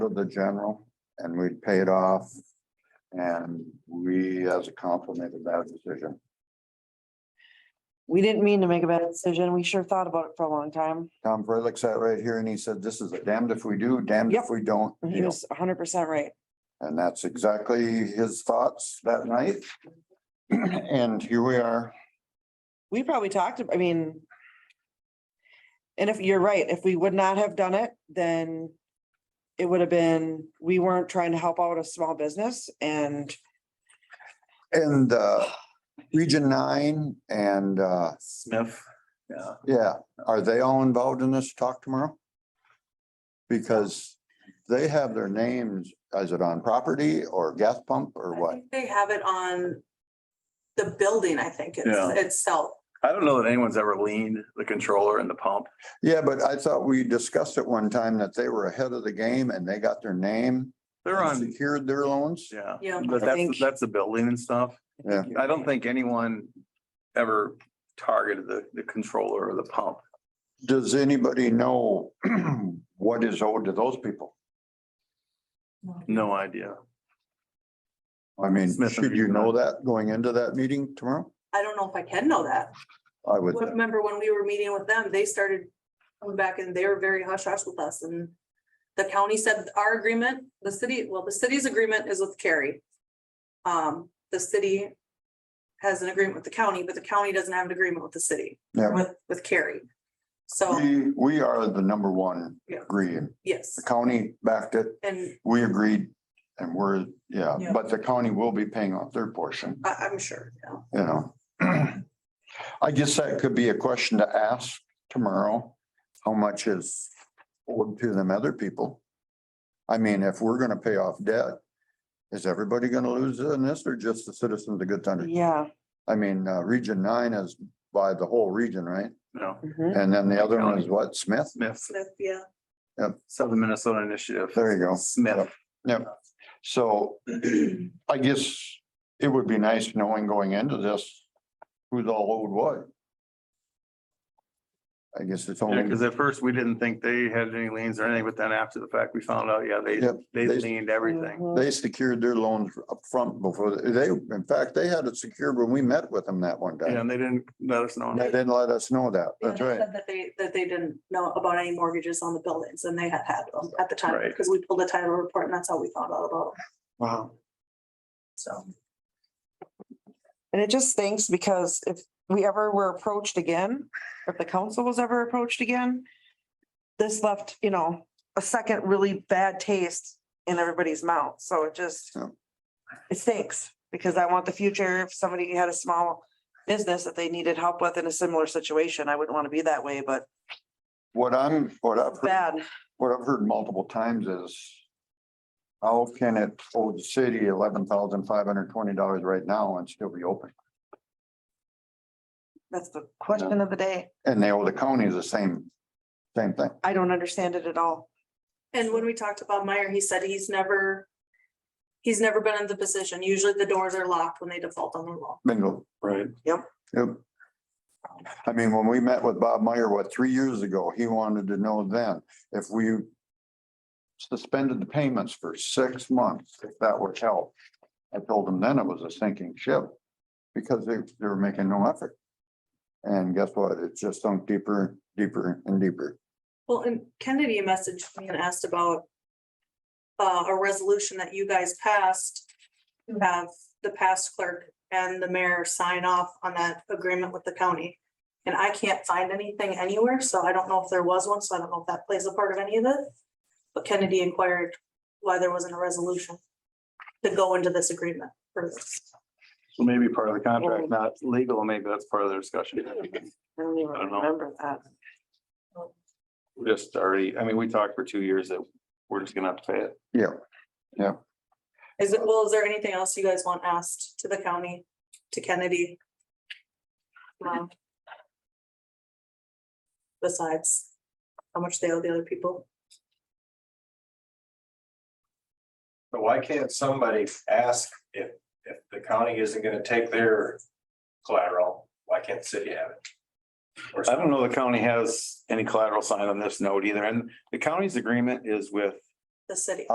to the general and we'd pay it off. And we, as a council, made a bad decision. We didn't mean to make a bad decision. We sure thought about it for a long time. Tom Freilich sat right here and he said, this is a damned if we do, damned if Yep. Mm-hmm. we don't. And He deal." was hundred percent right. And that's exactly his thoughts that night. And here we are. We probably talked, ab- I mean. And if you're right, if we would not have done it, then. It would have been, we weren't trying to help out a small business and And uh, Region Nine and uh, Smith, yeah, yeah, are they all involved in this talk tomorrow? Because they have their names, is it on property or gas pump or I what? think They have it on the building, I think, Yeah. it's itself. I don't know that anyone's ever leaned the controller and the pump. Yeah, but I thought we discussed at one time that they were ahead of the game and they got their name. They're and on, Secured their loans. yeah, Yeah. but I think- that's, that's the building and stuff. Yeah. I don't think anyone ever targeted the, the controller or the pump. Does anybody know what is owed to those people? No idea. I mean, Smith and should you know Friedman. that going into that meeting tomorrow? I don't know if I can know that. I would, But Remember when we were meeting with them, they started coming back and they were very hush hush with us and the county said our agreement, the city, well, the city's agreement is with Cary. Um, the city has an agreement with the county, but the county doesn't have an agreement with the city, yeah, with, with Cary. So, we, we are the number one Yeah. agreeing. yes, The county backed it, and we agreed and we're, yeah, Yeah. but the county will be paying off their portion. I, I'm sure, you know, you know. I guess that could be a question to ask tomorrow. How much is owed to them other people? I mean, if we're gonna pay off debt, is everybody gonna lose in this or just the citizens of Good Thunder? yeah. I mean, uh, Region Nine is by the whole region, right? No, mhm. And then the other one is what, Smith? Smith, Smith, yeah. Southern Minnesota Initiative. There you go. Smith. So I guess it would be nice knowing going into this, who's all owed what. I guess it's only. Because at first we didn't think they had any liens or anything, but then after the fact, we found out, yeah, they, Yep, they they- leaned everything. Mhm. They secured their loans up front before, they, in fact, they had it secured when we met with them that one Yeah, day. And they didn't let us know. And They didn't let us know that. Yeah, That's they right. said That they, that they didn't know about any mortgages on the buildings and they had had them at the time, Right. because we pulled a title report and that's how we found out about them, Wow. so. And it just stinks because if we ever were approached again, if the council was ever approached again. This left, you know, a second really bad taste in everybody's mouth, so it just. Yeah. It stinks, because I want the future, if somebody had a small business that they needed help with in a similar situation, I wouldn't want to be that way, but What I'm, what I've, it's heard- bad. what I've heard multiple times is how can it owe the city eleven thousand five hundred twenty dollars right now and still be open? That's the question of the day. And they owe the county the same, same thing. I don't understand it at all. And when we talked to Bob Meyer, he said he's never, he's never been in the position. Usually the doors are locked when they default on the loan. Bingo. Right. Yep. I mean, when we met with Bob Meyer, what, three years ago, he wanted to know then if we suspended the payments for six months, if that would help. I told him then it was a sinking ship because they, they were making no effort. And guess what? It just sunk deeper, deeper and deeper. Well, and Kennedy messaged me and asked about uh, a resolution that you guys passed to have the past clerk and the mayor sign off on that agreement with the county. And I can't find anything anywhere, so I don't know if there was one, so I don't know if that plays a part of any of it. But Kennedy inquired why there wasn't a resolution to go into this agreement for this. So maybe part of the contract, not legal, maybe that's part of the discussion. I don't even I don't know. remember that. We're Just already, I mean, we talked for two years that we're just gonna have to pay it. Yeah, Is it, well, is there anything else you guys want asked to the county, to Kennedy? Um, Besides, how much they owe the other people? But why can't somebody ask if, if the county isn't gonna take their collateral, why can't the city have it? Or I don't know the county has any collateral sign on this note either, and the county's agreement is with The city?